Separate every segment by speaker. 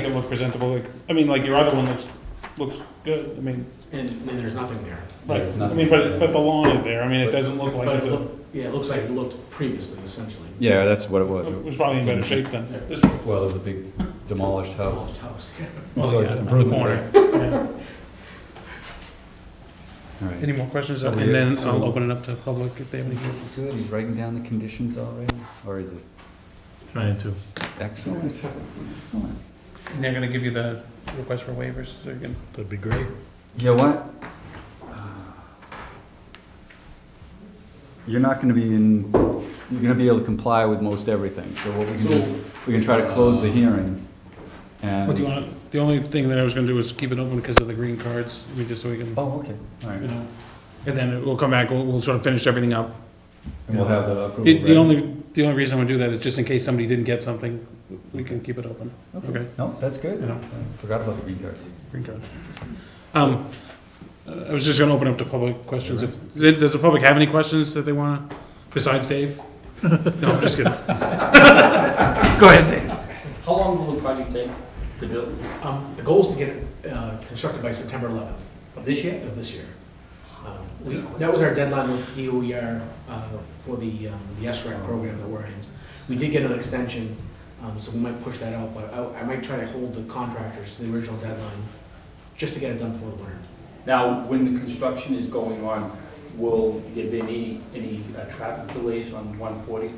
Speaker 1: look presentable, like, I mean, like your other one looks, looks good, I mean,
Speaker 2: And, and there's nothing there.
Speaker 3: But
Speaker 1: right,
Speaker 3: it's
Speaker 1: I
Speaker 3: not-
Speaker 1: mean, but, but the lawn is there, I mean, it doesn't look like
Speaker 2: But
Speaker 1: it's
Speaker 2: it
Speaker 1: a,
Speaker 2: look- Yeah, it looks like it looked previously, essentially.
Speaker 3: Yeah, that's what it was.
Speaker 1: it was probably in better shape than this
Speaker 3: Well, it was a big demolished house.
Speaker 2: House,
Speaker 1: Oh,
Speaker 3: So it's
Speaker 1: yeah,
Speaker 3: an
Speaker 1: on the
Speaker 3: improvement,
Speaker 1: corner.
Speaker 3: right?
Speaker 1: one.
Speaker 3: All right.
Speaker 1: Any more questions,
Speaker 3: So
Speaker 1: and
Speaker 3: we-
Speaker 1: then
Speaker 3: so-
Speaker 1: I'll open it up to public if they have any.
Speaker 3: Is he good? He's writing down the conditions already, or is it?
Speaker 4: Trying to.
Speaker 3: Excellent, excellent.
Speaker 1: And they're gonna give you the request for waivers, so you can.
Speaker 4: That'd be great.
Speaker 3: You know what? You're not gonna be in, you're gonna be able to comply with most everything, so what we can do is,
Speaker 2: So-
Speaker 3: we can try to close the hearing.
Speaker 1: What do you
Speaker 3: And,
Speaker 1: wanna, the only thing that I was gonna do is keep it open because of the green cards, I mean, just so we can,
Speaker 3: oh, okay, all
Speaker 1: you
Speaker 3: right.
Speaker 1: know, and then we'll come back, we'll, we'll sort of finish everything up.
Speaker 3: And we'll have the approval.
Speaker 1: The, the
Speaker 3: ready.
Speaker 1: only, the only reason I would do that is just in case somebody didn't get something, we can keep it open, okay?
Speaker 3: No, that's good.
Speaker 1: You know.
Speaker 3: I Forgot about the green cards.
Speaker 1: Green card. Um, uh, I was just gonna open up to public questions, if, does does the public have any questions that they wanna, besides Dave? No, I'm just kidding. Go ahead, Dave.
Speaker 5: How long will the project take to build?
Speaker 2: Um, the goal is to get it, uh, constructed by September eleventh
Speaker 5: Of this year?
Speaker 2: of this year. Um, We, that was our deadline with DOER, uh, for the, um, the SRAC program that we're in. We did get an extension, um, so we might push that out, but I, I might try to hold the contractors to the original deadline, just to get it done before the winter.
Speaker 5: Now, when the construction is going on, will there be any, any uh, traffic delays on 140?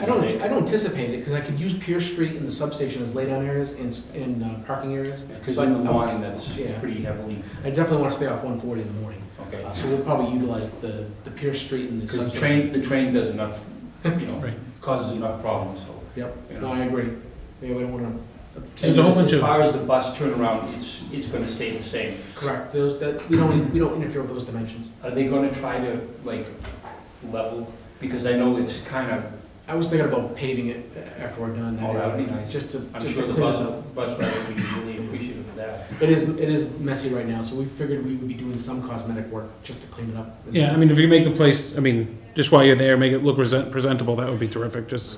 Speaker 2: I don't, I don't anticipate it, because I could use Pierce Street and the substation as laydown areas and, and uh, parking areas.
Speaker 5: Because
Speaker 2: So I-
Speaker 5: in the morning, that's
Speaker 2: Yeah.
Speaker 5: pretty heavily,
Speaker 2: I definitely want to stay off one forty in the morning,
Speaker 5: okay?
Speaker 2: Uh, so we'll probably utilize the, the Pierce Street and the
Speaker 5: Because the
Speaker 2: substation.
Speaker 5: train, the train does enough, you know,
Speaker 1: Right.
Speaker 5: causes enough problems, so.
Speaker 2: Yep,
Speaker 5: you
Speaker 2: no,
Speaker 5: know.
Speaker 2: I agree, yeah, we don't want
Speaker 1: There's a whole
Speaker 5: And
Speaker 1: bunch
Speaker 5: As
Speaker 1: of-
Speaker 5: far as the bus turnaround, it's, it's going to stay the same.
Speaker 2: to, correct, those, that, we don't, we don't interfere with those dimensions.
Speaker 5: Are they going to try to, like, level? Because I know it's kind of
Speaker 2: I was thinking about paving it after we're done.
Speaker 5: Oh, that would be nice.
Speaker 2: Just to,
Speaker 5: I'm
Speaker 2: just
Speaker 5: sure
Speaker 2: to
Speaker 5: the
Speaker 2: clear it
Speaker 5: bus,
Speaker 2: up.
Speaker 5: bus driver would be really appreciative of that.
Speaker 2: It is, it is messy right now, so we figured we would be doing some cosmetic work just to clean it up.
Speaker 1: Yeah, I mean, if you make the place, I mean, just while you're there, make it look present, presentable, that would be terrific, just,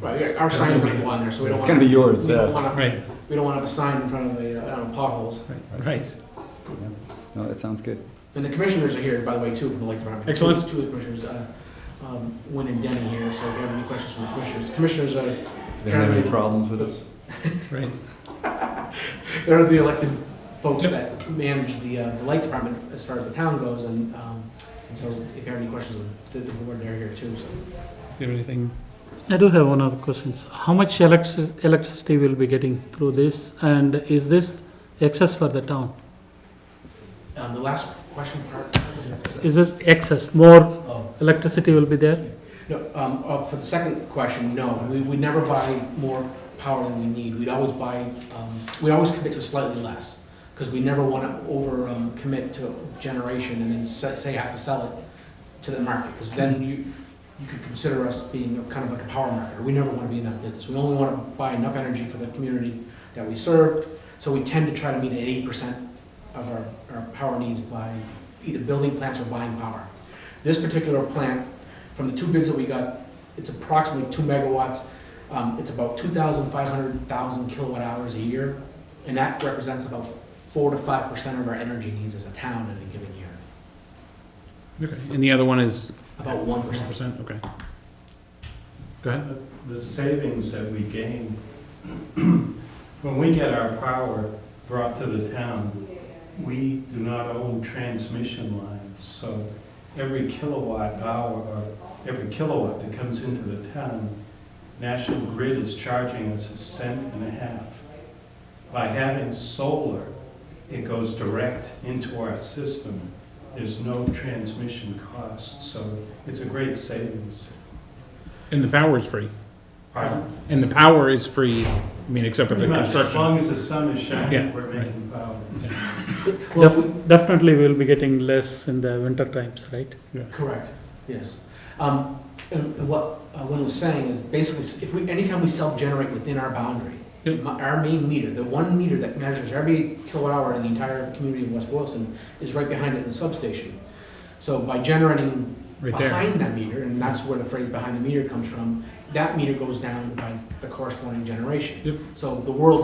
Speaker 2: Right, yeah, our sign's gonna go on there, so we don't
Speaker 3: It's
Speaker 2: want.
Speaker 3: gonna be yours,
Speaker 2: We don't
Speaker 3: yeah.
Speaker 2: wanna-
Speaker 1: right,
Speaker 2: We don't want to have a sign in front of the, uh, I don't know, potholes.
Speaker 1: right.
Speaker 3: No, that sounds good.
Speaker 2: And the commissioners are here, by the way, too, from the Lake Department.
Speaker 1: Excellent.
Speaker 2: Two of the commissioners, uh, um, Wynn and Denny here, so if you have any questions from the commissioners. Commissioners are,
Speaker 3: They don't have any problems with this?
Speaker 1: Right.
Speaker 2: they're the elected folks
Speaker 1: Yep.
Speaker 2: that manage the, uh, the Lake Department as far as the town goes, and, um, and so if you have any questions, the, the board, they're here too, so.
Speaker 1: Do you have anything?
Speaker 6: I do have one other question. How much electric- electricity we'll be getting through this, and is this excess for the town?
Speaker 2: Um, the last question part, is- uh,
Speaker 6: Is this excess, more
Speaker 2: oh.
Speaker 6: electricity will be there?
Speaker 2: No, um, uh, for the second question, no, we, we never buy more power than we need, we'd always buy, um, we always commit to slightly less, because we never wanna over, um, commit to generation and then say, say have to sell it to the market, because then you, you could consider us being kind of like a power marketer, we never wanna be in that business, we only wanna buy enough energy for the community that we serve, so we tend to try to meet at eight percent of our, our power needs by either building plants or buying power. This particular plant from the two bids that we got, it's approximately two megawatts. Um, it's about two thousand five hundred thousand kilowatt hours a year, and that represents about four to five percent of our energy needs as a town in a given year,
Speaker 1: Okay. And the other one is
Speaker 2: about one percent.
Speaker 1: percent, okay. Go ahead.
Speaker 4: The savings that we gain, when we get our power brought to the town, we do not own transmission lines. So every kilowatt hour, or every kilowatt that comes into the town, National Grid is charging us a cent and a half. By having solar, it goes direct into our system. There's no transmission cost, so it's a great savings.
Speaker 1: And the power is free.
Speaker 4: Pardon?
Speaker 1: And the power is free, I mean, except for the
Speaker 4: Pretty much, as
Speaker 1: construction.
Speaker 4: long as the sun is
Speaker 1: Yeah,
Speaker 4: shining, we're making power.
Speaker 2: Well,
Speaker 6: Def- Definitely we'll be getting less in the winter times, right?
Speaker 2: Correct, yes. Um, and and what uh, Wynn was saying is basically, if we, anytime we self-generate within our boundary,
Speaker 1: Yep.
Speaker 2: my- our main meter, the one meter that measures every kilowatt hour in the entire community of West Boylston, is right behind it in the substation. So by generating
Speaker 1: Right there.
Speaker 2: behind that meter, and that's where the phrase behind the meter comes from, that meter goes down by the corresponding generation.
Speaker 1: Yep.
Speaker 2: So the world